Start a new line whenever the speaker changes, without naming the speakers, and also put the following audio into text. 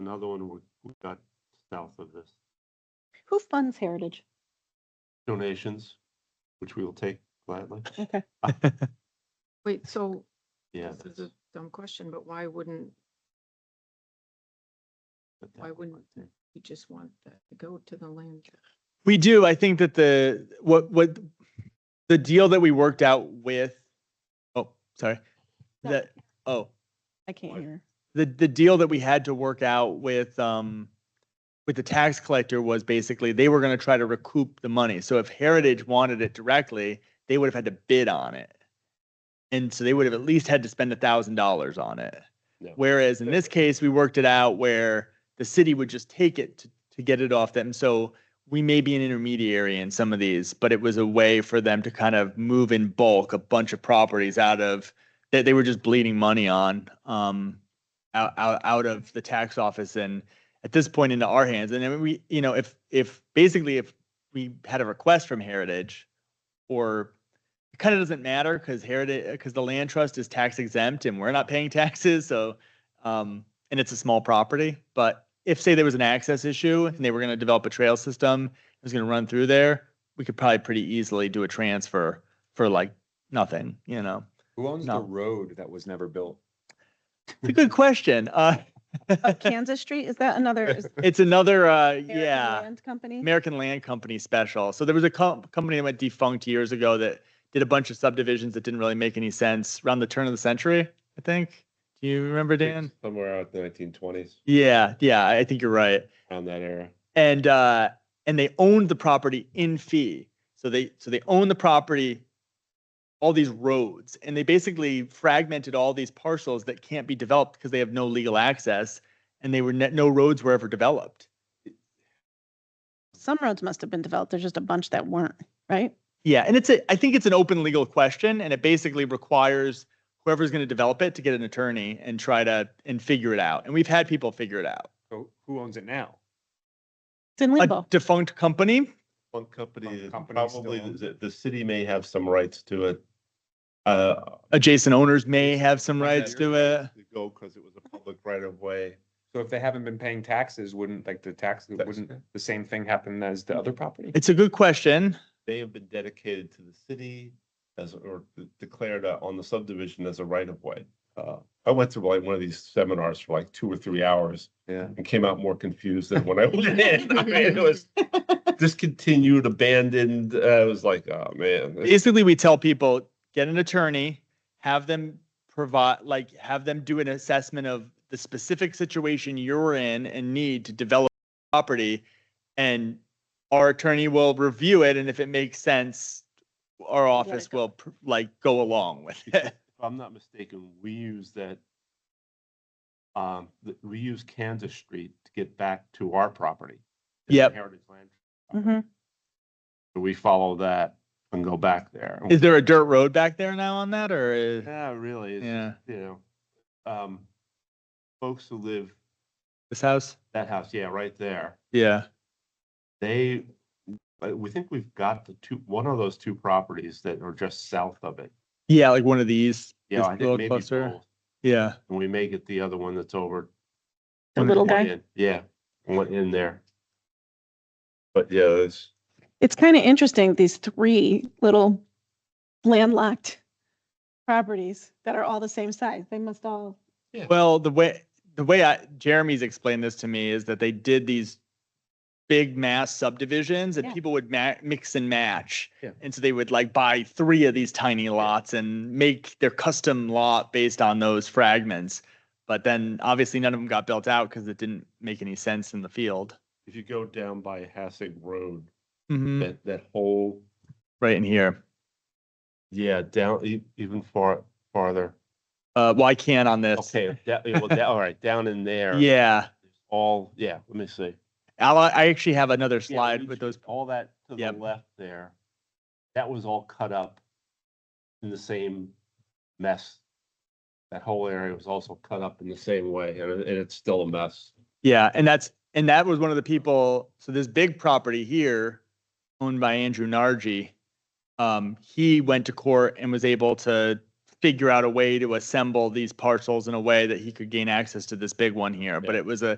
another one we we got south of this.
Who funds Heritage?
Donations, which we will take gladly.
Okay.
Wait, so
Yeah.
this is a dumb question, but why wouldn't
but that
why
one
wouldn't-
right
you just want that to go to the land?
We do. I think that the what what the deal that we worked out with oh sorry.
No.
That oh
I can't
What?
hear.
the the deal that we had to work out with um with the tax collector was basically they were going to try to recoup the money. So if Heritage wanted it directly, they would have had to bid on it. And so they would have at least had to spend a thousand dollars on it.
Yeah.
Whereas in this case, we worked it out where the city would just take it to, to get it off them. So we may be an intermediary in some of these, but it was a way for them to kind of move in bulk a bunch of properties out of that they were just bleeding money on um out, out out of the tax office and at this point into our hands. And then we, you know, if if basically if we had a request from Heritage or it kind of doesn't matter because heritage because the land trust is tax exempt and we're not paying taxes so um and it's a small property but if say there was an access issue and they were going to develop a trail system it was going to run through there we could probably pretty easily do a transfer for like nothing you know
Who owns
No.
the road that was never built?
it's a good question uh
Oh, Kansas Street, is that another? is
it's another uh
American
yeah
Land Company?
American Land Company special. So there was a co- company that went defunct years ago that did a bunch of subdivisions that didn't really make any sense around the turn of the century, I think. Do you remember, Dan?
Somewhere out in the nineteen twenties,
Yeah, yeah, I I think you're right.
around that era.
And uh, and they owned the property in fee. So they so they owned the property, all these roads, and they basically fragmented all these parcels that can't be developed because they have no legal access, and they were ne- no roads were ever developed.
Some roads must have been developed. There's just a bunch that weren't, right?
Yeah, and it's a I think it's an open legal question and it basically requires whoever's going to develop it to get an attorney and try to and figure it out. And we've had people figure it out.
So who owns it now?
It's in
A
limbo.
defunct company,
One company,
One
that
company still
probably
owns
the, the city may have some rights to it. Uh,
adjacent owners may have some
Yeah,
rights
you're
to it.
to Go, because it was a public right of way.
So if they haven't been paying taxes, wouldn't like the tax,
That's-
wouldn't the same thing happen as the other property?
It's a good question.
They have been dedicated to the city as, or declared uh, on the subdivision as a right of way. Uh, I went through like one of these seminars for like two or three hours
Yeah.
and came out more confused than when I went in. I mean, it was discontinued, abandoned. Uh, I was like, oh, man. this-
Basically, we tell people get an attorney, have them provide like have them do an assessment of the specific situation you're in and need to develop property and our attorney will review it and if it makes sense our
it
office
go.
will pr- like go along with
Because
it
If I'm not mistaken, we use that, um, th- we use Kansas Street to get back to our property. the
Yep.
Heritage Land.
Mhm.
So We follow that and go back there.
is there a dirt road back there now on that or is,
Yeah, really, it's,
yeah
you know, um, folks who live,
this house
that house, yeah, right there,
yeah
they, uh, we think we've got the two, one of those two properties that are just south of it.
yeah like one of these
Yeah,
this
I think
little
maybe
cluster.
both.
yeah
And we may get the other one that's over.
The little
one
guy.
in- Yeah, one in there. But yeah, it's,
It's kind of interesting, these three little landlocked properties that are all the same size. They must all,
Well, the way the way I, Jeremy's explained this to me is that they did these big mass subdivisions and
Yeah.
people would ma- mix and match.
Yeah.
And so they would like buy three of these tiny lots and make their custom lot based on those fragments. But then obviously none of them got built out because it didn't make any sense in the field.
if you go down by Hasig Road,
Mhm.
that, that whole,
Right in here.
yeah, down, e- even far, farther.
Uh, well, I can on this.
Okay, that, yeah, well, that, all right, down in there.
Yeah.
All, yeah, let me see.
I'll, I actually have another
Yeah,
slide
you
with
see
those.
All that to the
Yep.
left there, that was all cut up in the same mess. That whole area was also cut up in the same way, and, it- and it's still a mess.
Yeah, and that's and that was one of the people. So this big property here, owned by Andrew Nargi, um, he went to court and was able to figure out a way to assemble these parcels in a way that he could gain access to this big one here. But
Yeah.
it was a